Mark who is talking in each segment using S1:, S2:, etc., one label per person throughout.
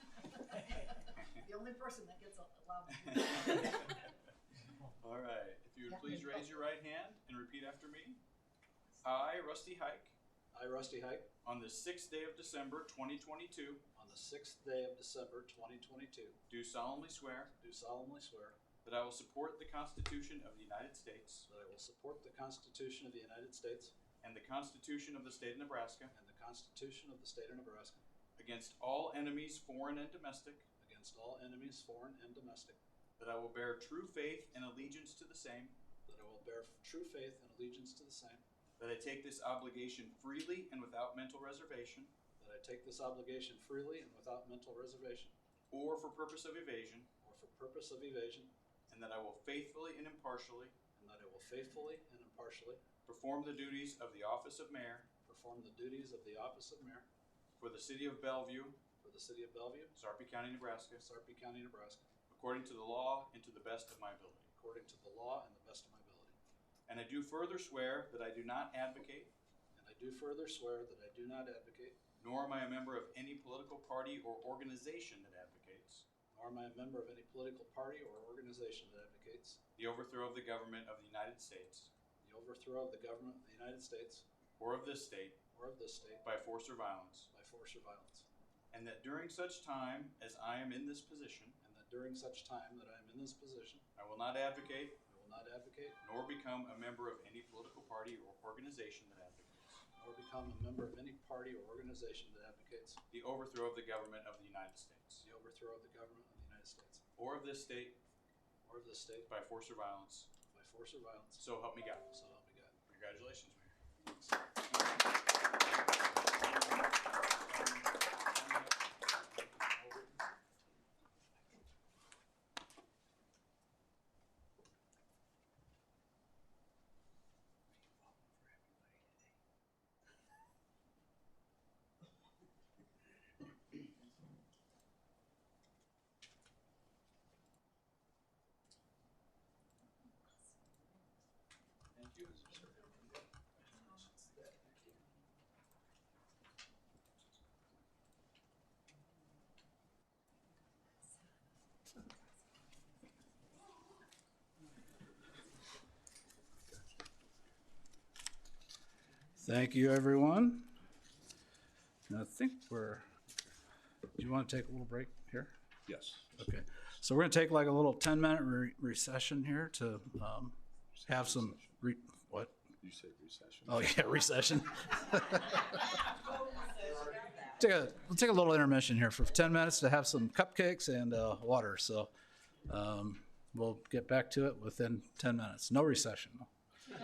S1: person that gets allowed.
S2: All right. If you would
S1: Yeah.
S2: please raise your right hand and repeat after me. I, Rusty Hike,
S3: I, Rusty Hike,
S2: on the sixth day of December 2022,
S3: on the sixth day of December 2022,
S2: do solemnly swear
S3: do solemnly swear
S2: that I will support the Constitution of the United States
S3: that I will support the Constitution of the United States
S2: and the Constitution of the State of Nebraska
S3: and the Constitution of the State of Nebraska
S2: against all enemies, foreign and domestic,
S3: against all enemies, foreign and domestic,
S2: that I will bear true faith and allegiance to the same,
S3: that I will bear true faith and allegiance to the same,
S2: that I take this obligation freely and without mental reservation
S3: that I take this obligation freely and without mental reservation
S2: or for purpose of evasion,
S3: or for purpose of evasion,
S2: and that I will faithfully and impartially
S3: and that I will faithfully and impartially
S2: perform the duties of the office of mayor
S3: perform the duties of the office of mayor
S2: for the city of Bellevue,
S3: for the city of Bellevue,
S2: Sarpy County, Nebraska,
S3: Sarpy County, Nebraska,
S2: according to the law and to the best of my ability.
S3: according to the law and the best of my ability.
S2: And I do further swear that I do not advocate,
S3: And I do further swear that I do not advocate,
S2: nor am I a member of any political party or organization that advocates,
S3: nor am I a member of any political party or organization that advocates,
S2: the overthrow of the government of the United States
S3: the overthrow of the government of the United States
S2: or of this state
S3: or of this state
S2: by force or violence,
S3: by force or violence,
S2: and that during such time as I am in this position,
S3: and that during such time that I am in this position,
S2: I will not advocate
S3: I will not advocate
S2: nor become a member of any political party or organization that advocates
S3: or become a member of any party or organization that advocates
S2: the overthrow of the government of the United States
S3: the overthrow of the government of the United States
S2: or of this state
S3: or of this state
S2: by force or violence.
S3: by force or violence.
S2: So help me God.
S3: So help me God.
S2: Congratulations, Mayor. Thank you.
S3: Thank you, everyone. And I think we're, do you want to take a little break here?
S4: Yes.
S3: Okay, so we're gonna take like a little ten-minute re- recession here to, um, have some, re- what?
S4: You say recession.
S3: Oh, yeah, recession. Take a, we'll take a little intermission here for ten minutes to have some cupcakes and, uh, water, so, um, we'll get back to it within ten minutes. No recession.
S4: So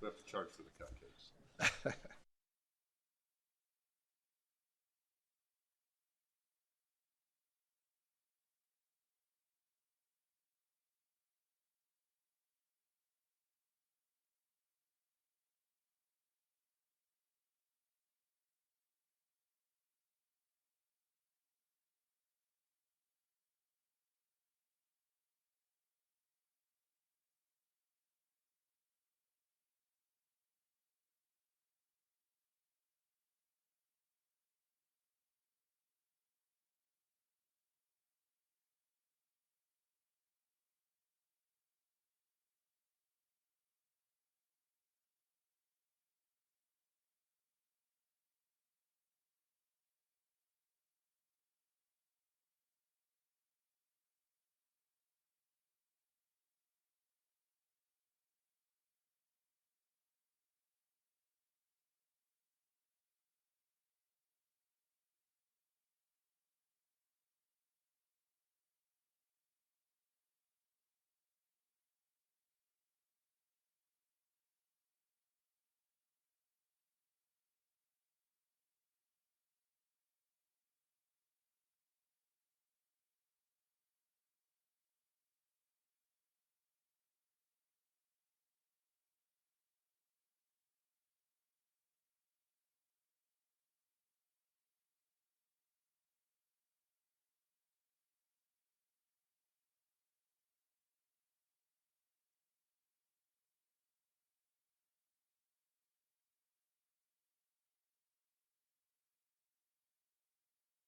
S4: we have to charge for the cupcakes.